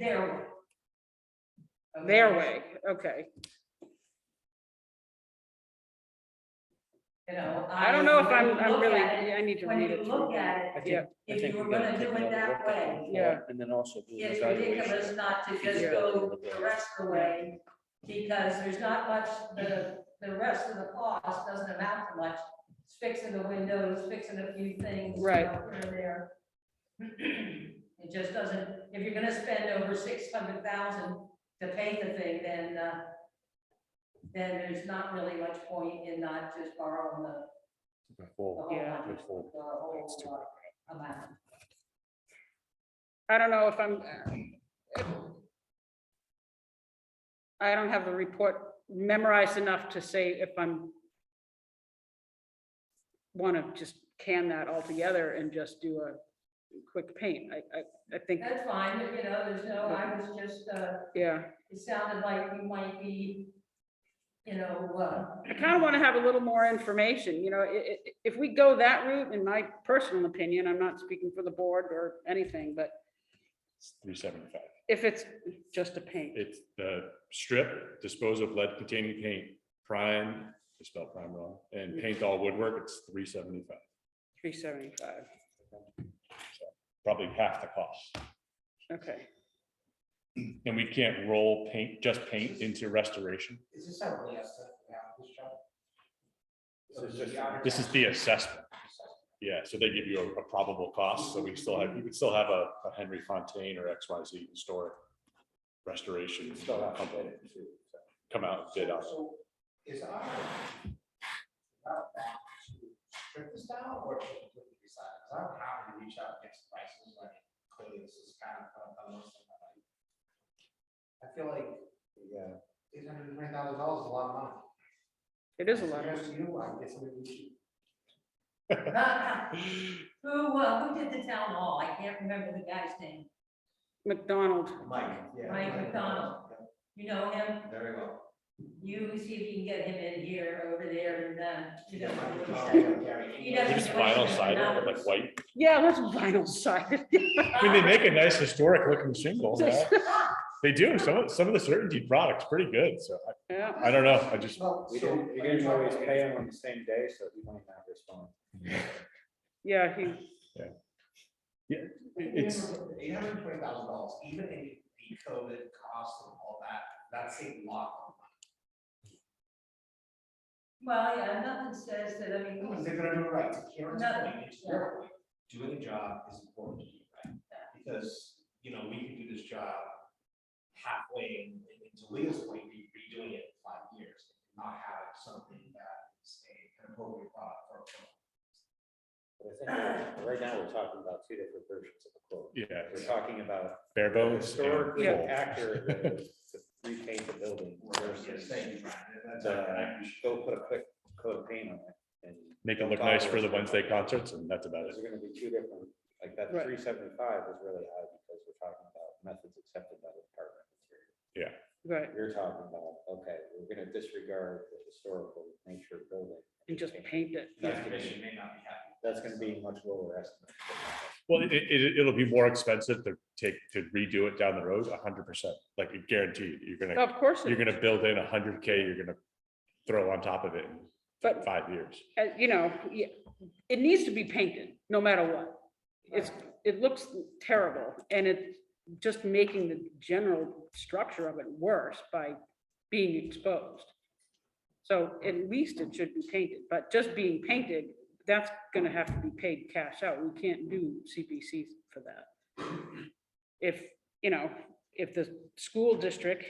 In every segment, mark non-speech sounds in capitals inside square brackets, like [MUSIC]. their way. Okay. Their way, okay. You know. I don't know if when I'm, you I'm look really, at it, I need to when read you it. look through. at I it, Yeah. think, I If think you we were gotta gonna take do it another that look at it way, before, Yeah. And then also do an It's evaluation. ridiculous not to just Yeah. go the rest of the way, because there's not much, the, the rest of the cost doesn't amount to much. It's fixing the windows, fixing a few things. you Right. know, here and there. It just doesn't, if you're gonna spend over six hundred thousand to paint the thing, then, uh, then there's not really much point in not just borrowing the the Before, whole Yeah. amount, the Before. It's too- whole uh, amount. I don't know if I'm. uh, I don't have the report memorized enough to say if I'm. Want to just can that altogether and just do a quick paint. I, I, I think, That's fine, you know, there's no, I was just, uh, yeah. it sounded like we might be, you know, uh. I kind of want to have a little more information, you know, i- i- i- if we go that route, in my personal opinion, I'm not speaking for the board or anything, but It's three seventy-five. if it's just a paint, It's the strip, dispose of lead containing paint, prime, I spelled prime wrong, and paint all woodwork, it's three seventy-five, three seventy-five, probably half the cost. okay. And we can't roll paint, just paint into restoration. Is this how we estimate the apples, Chuck? So the average- This is the assessment. Yeah, so they give you a- a probable cost, so we still have, you could still have a a Henry Fontaine or X Y Z historic restoration. Still have to company Come out and bid on it. So Is our. our back to Strip this down or to completely decide, because I'm happy to reach out and get some prices, like clearly this is kind of. a- a little something like- I feel like. Yeah. Eight hundred and twenty thousand dollars is a lot of money. It is a lot. Suggest to you, I guess we should. Who, uh, who did the town hall? I can't remember the guy's name. McDonald, Mike, yeah. Mike McDonald. You know him? Yeah, Very well. You see if you can get him in here, over there, and then, you know. Mike what he McDonald, said. Gary England. He doesn't Just vinyl question cider the with like numbers. white yeah, let's vinyl sided. I mean, they make a nice historic looking shingle. yeah. They do. Some of, some of the certainty products pretty good. So [LAUGHS] Yeah, I, I don't know. I just, Well, We so- didn't, we didn't always pay him on the same day, so he might not respond. yeah, he, it's, Eight hundred and twenty thousand dollars, even if the COVID costs and all that, that's a lot. Well, yeah, nothing says that, I mean, Because they're gonna do it right, to Karen's Nothing, point, it's your point, doing the job is important to you, right? Because, you know, we could do this job halfway, and and to Leah's point, be redoing it in five years, not have something that is a an appropriate product for. for- But I think we're- right now, we're talking about two different versions of the quote. yeah, We're talking about bare bones. and historically full. accurate that is to repaint the building Yes, versus thank you, Brian, and that's- uh, go put a quick coat of paint on it. and Make it look nice for the Wednesday concerts and that's about Those it. are gonna be two different, like that Right. three seventy-five is really high because we're talking about methods accepted by the department. of Interior. right, You're talking about, okay, we're gonna disregard the historical nature of building. and just paint it. That That's gonna be- commission may not be happy. that's gonna be a much lower estimate. Well, it, it, it'll be more expensive to take, to redo it down the road, a hundred percent. Like I guarantee you, you're gonna, Of course, it you're is. gonna build in a hundred K, you're gonna throw on top of it in But- five years. uh, you know, y- it needs to be painted, no matter what. It's, it looks terrible, and it's just making the general structure of it worse by being exposed. So at least it should be painted, but just being painted, that's gonna have to be paid cash out. We can't do CPC for that. If, you know, if the school district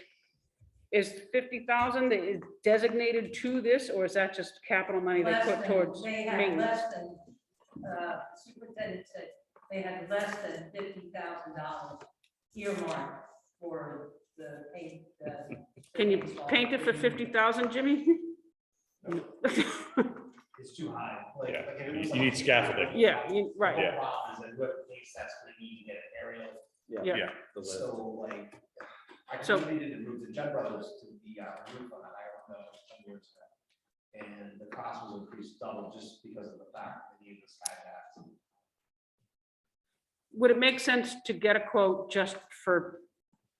is fifty thousand, is designated to this, or is that just capital money they less put than- towards They had maintenance? less than, uh, superintendent said, they had less than fifty thousand dollars earmarked for the paint. the- Can you paint it for fifty thousand, Jimmy? [LAUGHS] It's too high. like- Yeah, like, if it you- was you like- need scaffolding. Yeah, you- The right, whole Yeah. problem Is that what place that's gonna need to get an aerial, yeah, Yeah, The list. so like, I So- completely did the roof, the Judd Brothers to the uh, roof on that, I don't know, some years ago. And the cost was increased double just because of the fact that they needed the sky path. would it make sense to get a quote just for